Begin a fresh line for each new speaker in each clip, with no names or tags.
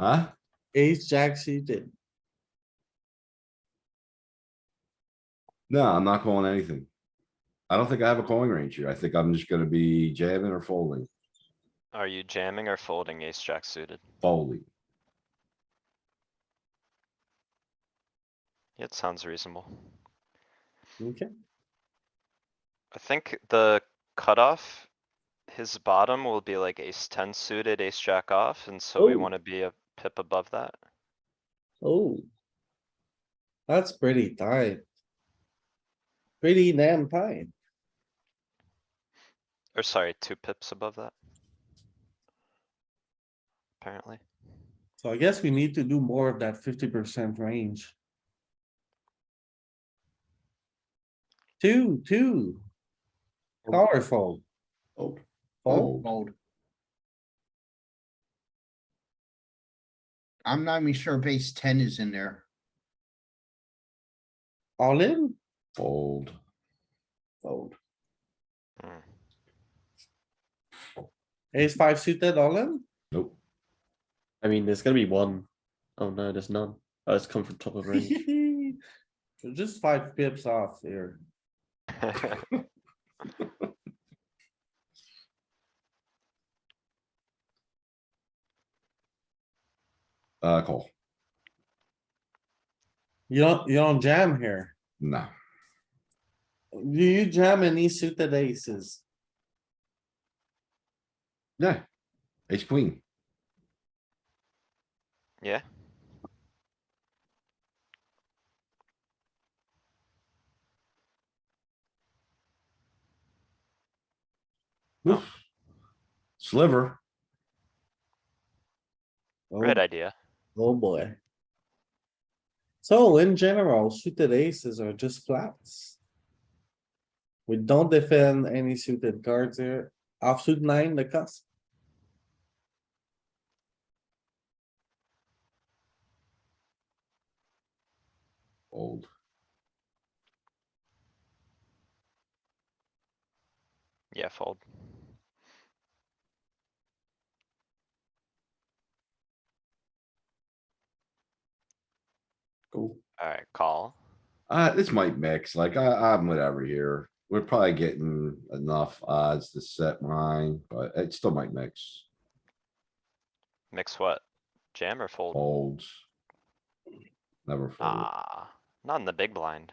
Huh?
ace, jack suited.
No, I'm not calling anything. I don't think I have a calling range here. I think I'm just gonna be jamming or folding,
Are you jamming or folding ace jack suited?
folding.
It sounds reasonable.
Okay,
I think the cutoff, his bottom will be like ace ten suited, ace jack off, and so we
Ooh.
wanna be a pip above that.
oh. That's pretty tight. Pretty damn tight.
Or sorry, two pips above that. Apparently.
So I guess we need to do more of that fifty percent range. Two, two. Powerful.
Oh,
Fold.
oh,
Fold. I'm not even sure base ten is in there.
all in?
fold.
Fold.
Hmm.
Ace five suited all in?
Nope.
I mean, there's gonna be one. Oh no, there's none. Oh, it's come from top of range.
So Just five pips off here.
Uh, call.
You don't, you don't jam here.
No,
Do you jam any suited aces?
yeah. Ace queen.
Yeah,
Oof. Sliver.
Oh,
great idea.
Oh, boy. So in general, suited aces are just flats. We don't defend any suited cards here. Offsuit nine, the cusp.
Old.
Yeah, fold.
Cool.
Alright, call.
Uh, this might mix, like, I, I'm whatever here. We're probably getting enough odds to set mine, but it still might mix.
Mix what? Jam or fold?
Folds. Never fold.
Ah, not in the big blind.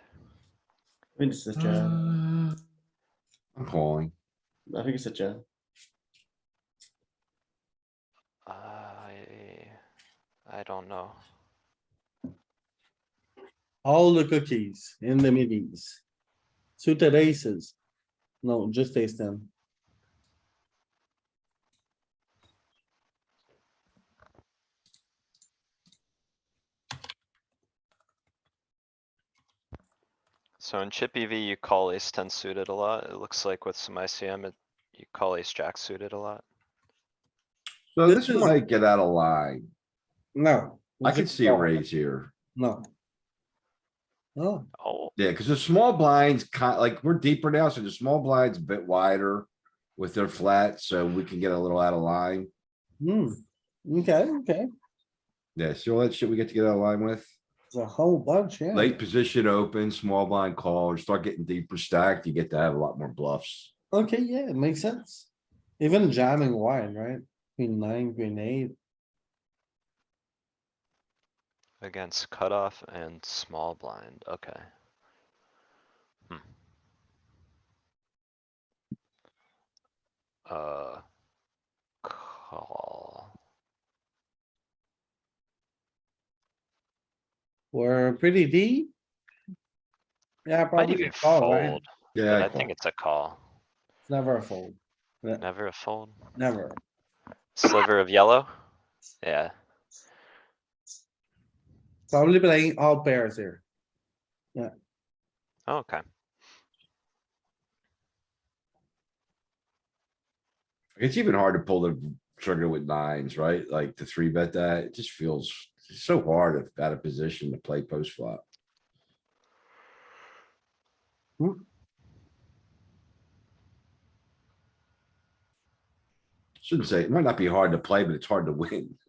I think it's a jam.
Uh, I'm calling.
I think it's a jam.
Uh, I, I don't know.
All the cookies in the middies. Suited aces. No, just ace ten.
So in chip EV, you call ace ten suited a lot. It looks like with some ICM, it, you call ace jack suited a lot.
So
This
this
is-
might get out of line.
No.
I could see a
No.
raise here.
No. No,
Oh,
Yeah, because the small blinds, ki- like, we're deeper now, so the small blinds a bit wider with their flat, so we can get a little out of line.
hmm, okay, okay,
Yeah, see all that shit we get to get out of line with?
there's a whole bunch, yeah.
Late position open, small blind call, or start getting deeper stacked, you get to have a lot more bluffs.
Okay, yeah, it makes sense. Even jamming wide, right? Queen nine, queen eight,
against cutoff and small blind, okay. Hmm. Uh. Call.
we're pretty deep. Yeah,
Might
probably
even
a call, right?
fold, but
Yeah,
I
I call.
think it's a call.
It's Never a fold,
Never a fold.
never.
Sliver of yellow? Yeah,
Probably playing all pairs here.
Oh, okay.
it's even hard to pull the trigger with nines, right? Like to three bet that, it just feels so hard if out of position to play post flop. Shouldn't say, it might not be hard to play, but it's hard to win.